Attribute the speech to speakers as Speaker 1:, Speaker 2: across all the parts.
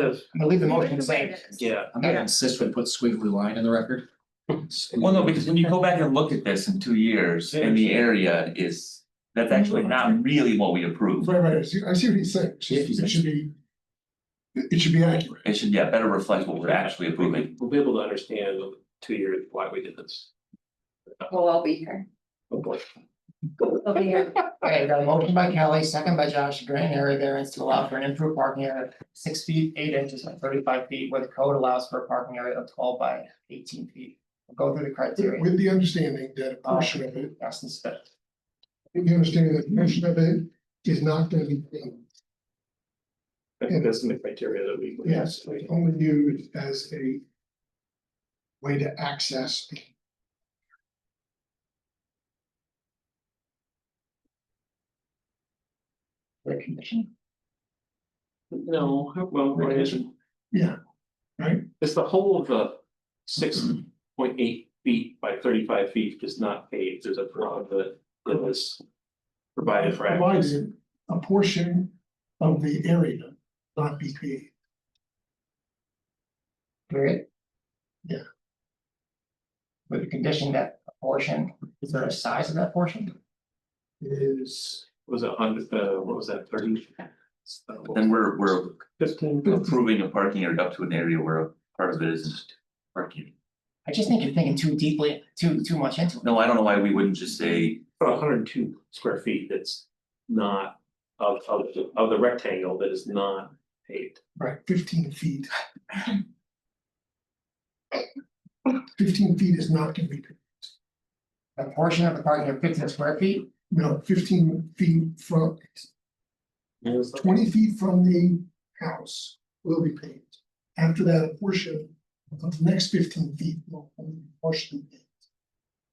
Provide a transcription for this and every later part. Speaker 1: I'm gonna leave the motion the same.
Speaker 2: Yeah.
Speaker 1: I'm gonna insist we put squiggly line in the record.
Speaker 3: Well, no, because when you go back and look at this in two years, and the area is, that's actually not really what we approved.
Speaker 4: Right, right, I see, I see what he's saying, It's just- it should be. It it should be accurate,
Speaker 3: It should, yeah, better reflect what we're actually approving.
Speaker 2: We'll be able to understand in two years why we did this.
Speaker 5: We'll all be here.
Speaker 2: Oh, boy.
Speaker 5: We'll be here.
Speaker 1: Alright, got a motion by Kelly, second by Josh, grant area variance to allow for an improved parking area of six feet, eight inches and thirty-five feet, where the code allows for a parking area of twelve by eighteen feet. We'll Go through the criteria,
Speaker 4: with the understanding that a portion of it,
Speaker 1: that's the step.
Speaker 4: with the understanding that a portion of it is not gonna be. being
Speaker 2: I think that's the criteria that we.
Speaker 4: Yes. Only used as a. Way to access. the-
Speaker 2: No, well, it isn't.
Speaker 4: Yeah, right. Mm-hmm.
Speaker 2: It's the whole of the six point eight feet by thirty-five feet is not paved, there's a broad that that is provided for. access.
Speaker 4: Provided a portion of the area not be created.
Speaker 1: Period.
Speaker 4: Yeah.
Speaker 1: With the condition that a portion, is there a size of that portion?
Speaker 4: is.
Speaker 2: Was it under, uh, what was that, thirty?
Speaker 3: Then we're, we're
Speaker 2: Fifteen.
Speaker 3: approving a parking area up to an area where a part of it isn't parking.
Speaker 1: I just think you're thinking too deeply, too, too much into it.
Speaker 3: No, I don't know why we wouldn't just say,
Speaker 2: about hundred and two square feet that's not of of the of the rectangle that is not paved.
Speaker 4: Right, fifteen feet. Fifteen feet is not gonna be,
Speaker 1: A portion of the parking area fifteen square feet,
Speaker 4: no, fifteen feet from, twenty feet from the house will be paved. After that a portion, of the next fifteen feet will only be partially paved.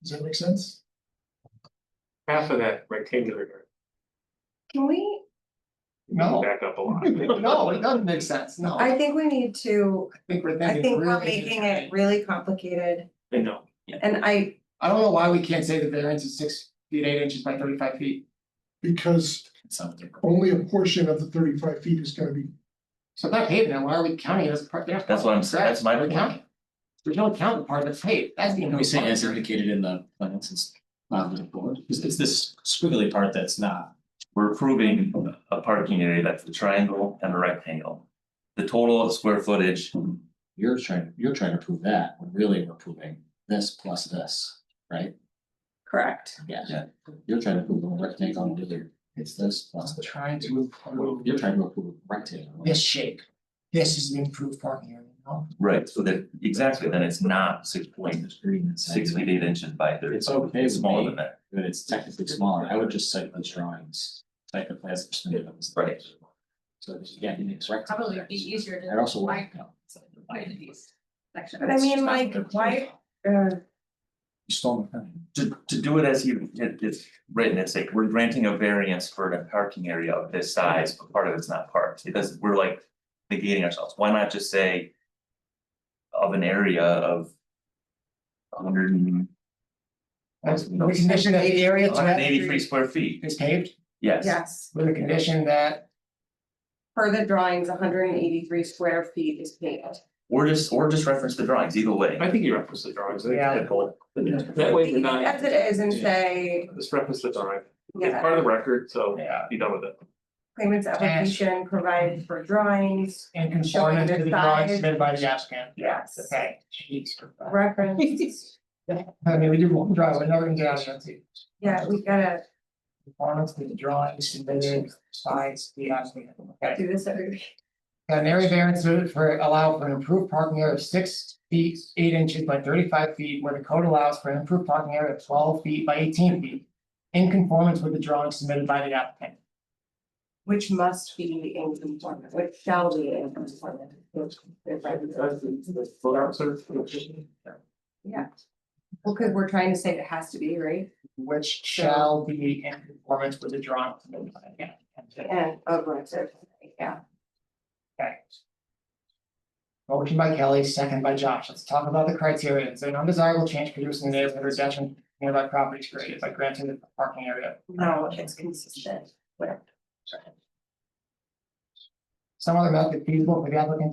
Speaker 4: Does that make sense?
Speaker 2: Half of that rectangular
Speaker 5: Can we,
Speaker 1: no,
Speaker 2: back up a lot.
Speaker 1: no, it doesn't make sense, no.
Speaker 5: I think we need to,
Speaker 1: think we're
Speaker 5: I
Speaker 1: thinking
Speaker 5: think we're
Speaker 1: really
Speaker 5: making
Speaker 1: differently.
Speaker 5: it really complicated
Speaker 2: I know,
Speaker 5: and I,
Speaker 1: I don't know why we can't say the variance is six feet, eight inches by thirty-five feet.
Speaker 4: Because
Speaker 1: It sounds different.
Speaker 4: only a portion of the thirty-five feet is gonna be,
Speaker 1: So if that paved, then why are we counting it as part? they're not
Speaker 3: That's what I'm-
Speaker 1: counting
Speaker 3: that's my
Speaker 1: grass,
Speaker 3: point.
Speaker 1: We're counting. We don't count the part that's paved, that's the.
Speaker 6: Can we say as indicated in the plans, it's not the board, it's, it's this squiggly part that's not.
Speaker 3: we're approving a parking area that's a triangle and a rectangle. The total of square footage,
Speaker 6: You're trying, you're trying to prove that, when really we're proving this plus this, right?
Speaker 5: correct,
Speaker 6: You're trying to prove a rectangle and really it's this plus
Speaker 1: I'm
Speaker 6: the,
Speaker 1: Trying to improve
Speaker 6: you're trying to prove a rectangle.
Speaker 1: this shape. This is an improved parking area, no?
Speaker 3: right, so that, exactly, then it's not six point
Speaker 6: It's green and
Speaker 3: six feet eight inches by thirty.
Speaker 6: It's okay
Speaker 3: It's
Speaker 6: with
Speaker 3: smaller
Speaker 6: me.
Speaker 3: than that.
Speaker 6: But it's technically smaller, I would just cite the drawings, type the plans. that submitted on this.
Speaker 3: Right.
Speaker 6: So that you get it's rectangle.
Speaker 7: Probably would be easier to.
Speaker 6: I'd also like. uh,
Speaker 7: divide- divide these sections.
Speaker 5: but I mean, like, why, uh,
Speaker 6: You stole my pen.
Speaker 3: To to do it as you, it it's written, it's like, we're granting a variance for a parking area of this size, but part of it's not parked, it doesn't, we're like negating ourselves, why not just say. Of an area of. a Hundred and,
Speaker 1: That's the condition that the area
Speaker 3: a
Speaker 1: to
Speaker 3: hundred
Speaker 1: have
Speaker 3: and eighty-three square feet,
Speaker 1: is paved,
Speaker 3: yes.
Speaker 5: yes,
Speaker 1: with a condition that
Speaker 5: per the drawings, hundred and eighty-three square feet is paved.
Speaker 3: Or just, or just reference the drawings, either way,
Speaker 2: I think you reference the drawings, I think
Speaker 1: Yeah.
Speaker 2: that whole- that way you're
Speaker 5: As
Speaker 2: not,
Speaker 5: it is and say,
Speaker 2: just reference the drawing, it's
Speaker 5: yeah,
Speaker 2: part of the record, so
Speaker 1: Yeah.
Speaker 2: be done with it.
Speaker 5: claimant's application provides for drawings,
Speaker 1: in conformance to the drawings submitted by the applicant.
Speaker 5: yes,
Speaker 1: Okay, jeez. Christ.
Speaker 5: reference,
Speaker 1: I mean, we do one drawing, we're never gonna get out of it.
Speaker 5: yeah, we gotta
Speaker 1: Performance with the drawings, submitted, size, the applicant. Okay.
Speaker 5: do this every.
Speaker 1: An area variance would for allow for an improved parking area of six feet, eight inches by thirty-five feet, where the code allows for an improved parking area of twelve feet by eighteen feet. In conformance with the drawings submitted by the applicant.
Speaker 5: Which must be in conformance, which shall be in conformance. Yeah. Well, because we're trying to say it has to be, right?
Speaker 1: Which shall be in conformance with the drawings submitted by the applicant.
Speaker 5: And of course, yeah.
Speaker 1: Okay. Motion by Kelly, second by Josh. Let's talk about the criteria. Is there an undesirable change produced in the neighborhood or detriment to nearby properties created by granting the parking area?
Speaker 5: No, it's consistent.
Speaker 1: Some other method feasible for the applicant